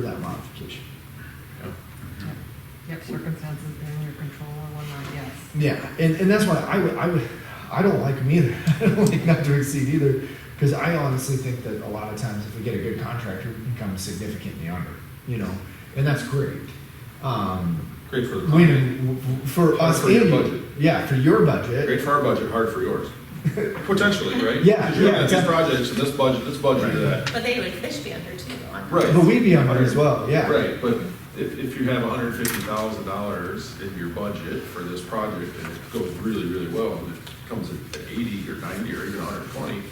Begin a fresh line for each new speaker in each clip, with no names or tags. for that modification.
Yep, circumstances beyond your control or whatnot, yes.
Yeah, and, and that's why I would, I would, I don't like them either. I don't like not to exceed either, because I honestly think that a lot of times if we get a good contractor, we can come significantly under, you know, and that's great. Um,
Great for the
we,
company.
for us
For your
and you.
budget.
yeah, for your budget,
Great for our budget, hard for yours. Potentially, right?
Yeah,
'Cause you're looking
yeah,
at these
exactly.
projects and this budget, this budget, that.
But they would fish be under too, though. I'm-
Right.
but we'd be under as well. Yeah,
Right, but if, if you have hundred fifty thousand dollars in your budget for this project and it goes really, really well, and it comes at eighty or ninety or even hundred twenty,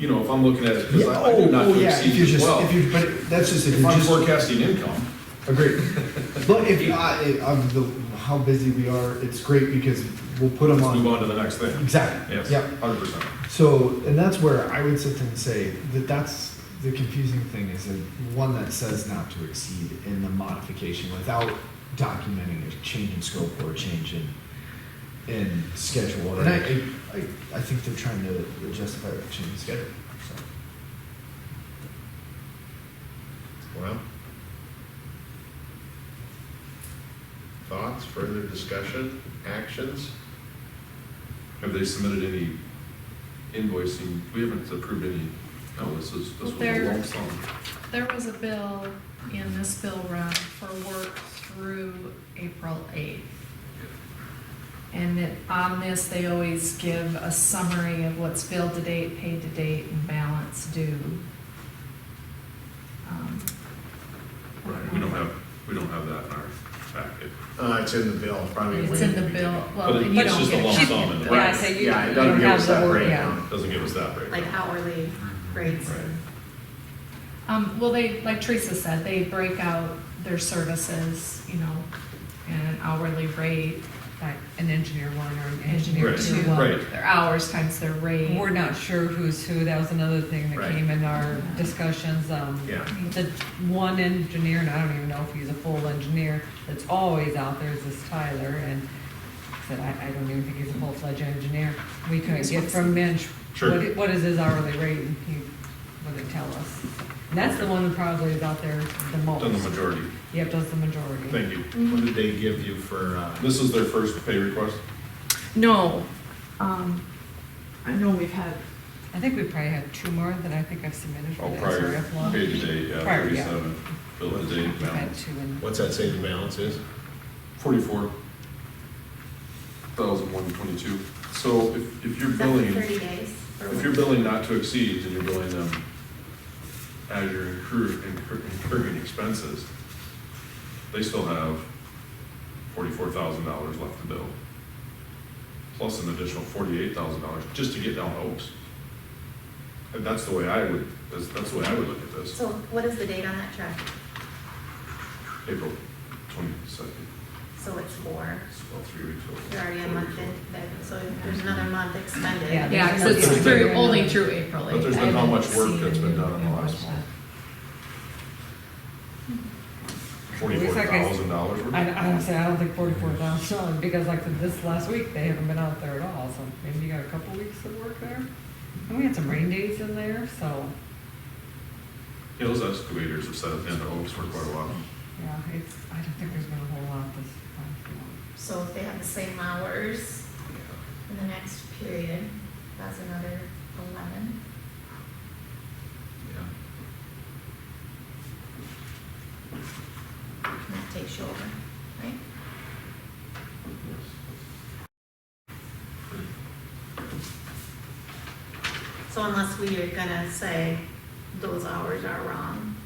you know, if I'm looking at it, because
Yeah,
I I
oh,
do not
oh,
to
yeah. If
exceed
you're
as
just,
well.
if you, but that's just if,
If
you're
I'm
just
forecasting income,
Agreed. But if I, of the, how busy we are, it's great because we'll put them
let's move
on.
on to the next thing.
Exactly.
Yes,
Yep.
hundred percent.
So, and that's where I would sit there and say that that's the confusing thing is the one that says not to exceed in the modification without documenting a change in scope or a change in in schedule. And I, I, I think they're trying to justify a change in schedule. So.
Well. Thoughts, further discussion, actions?
Have they submitted any invoicing? We haven't approved any, no, this is, this was a
There-
lump sum.
There was a bill in this bill run for work through April 8th. And it- on this, they always give a summary of what's billed to date, paid to date, and balance due. Um,
Right, we don't have, we don't have that in our packet.
Uh, it's in the bill, probably.
It's
way
in the
beginning.
bill, well,
But
you don't
it- but
get.
it's just a lump
she-
sum in there.
yeah,
Yeah, so you,
Yeah, it
you
doesn't
don't
give us
have
that
the, word- yeah,
breakdown.
Doesn't give us that breakdown.
like hourly rates and.
Um, well, they, like Teresa said, they break out their services, you know, and an hourly rate,
Like an engineer one or an engineer
engineer
Right,
two,
two.
Well, right.
their hours times their rate.
We're not sure who's who, that was another thing that
Right.
came in our discussions, um,
Yeah.
the one engineer, and I don't even know if he's a full engineer, that's always out there is this Tyler, and I said, I, I don't even think he's a full-fledged engineer. We couldn't get from Minch,
Sure.
what, i- what is his hourly rate, and he wouldn't tell us. And that's the one that probably is out there the
Done the
most.
majority.
Yep, does the majority.
Thank you.
What did they give you for, uh,
This is their first pay request?
No. Um, I know we've had,
I think we probably have two more that I think I've submitted for
Oh,
the
prior,
SRF one.
pay to date, yeah,
Prior, yeah.
thirty-seven, bill to date
We've had
balance,
two in.
what's that say the balance is?
forty-four thousand one twenty-two. So if, if you're
Is that for
billing,
thirty days? or
if
what?
you're billing not to exceed, and you're billing them as you're incur- incur- incurring expenses, they still have forty-four thousand dollars left to bill, plus an additional forty-eight thousand dollars just to get down to Oaks. And that's the way I would, that's, that's the way I would look at this.
So what is the date on that track?
April twenty-second,
So it's four,
it's about three weeks old.
you're already a month in, there, so there's another month extended.
Yeah,
yeah, 'cause
But
it's
there's
through,
been-
only through April
But
8th.
there's
I
been how
haven't
much work
seen
that's been
it.
done in the last month? Forty-four thousand dollars.
I, I honestly, I don't think forty-four thousand dollars, because like this last week, they haven't been out there at all, so maybe you got a couple weeks of work there. And we had some rain days in there, so,
Yeah, those excavators have set up in the Oaks for quite a while.
yeah, it's, I don't think there's been a whole lot this time.
So if they have the same hours in the next period, that's another eleven.
Yeah.
And that takes you over, right? So unless we are gonna say those hours are wrong.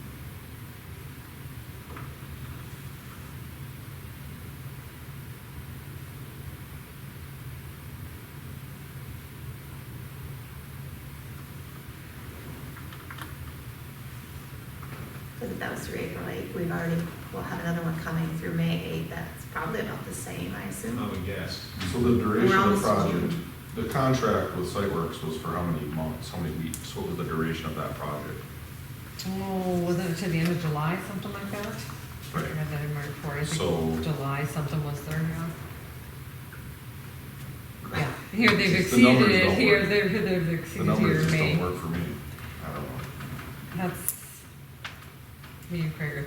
Because if that was through April eighth, we've already, we'll have another one coming through May eighth, that's probably about the same, I assume.
would guess.
So the duration of the
Around
project,
June.
the contract with Siteworks was for how many months, how many weeks? What was the duration of that project?
Oh, wasn't it to the end of July, something like that? I
Right.
read that in my report, I
So-
think July something was there, yeah. Yeah, here they've
Just the numbers
exceeded it,
don't
here
work.
they're, here they've
The
exceeded
numbers
here,
just don't
May,
work for me. I don't know.
that's, me and Craig are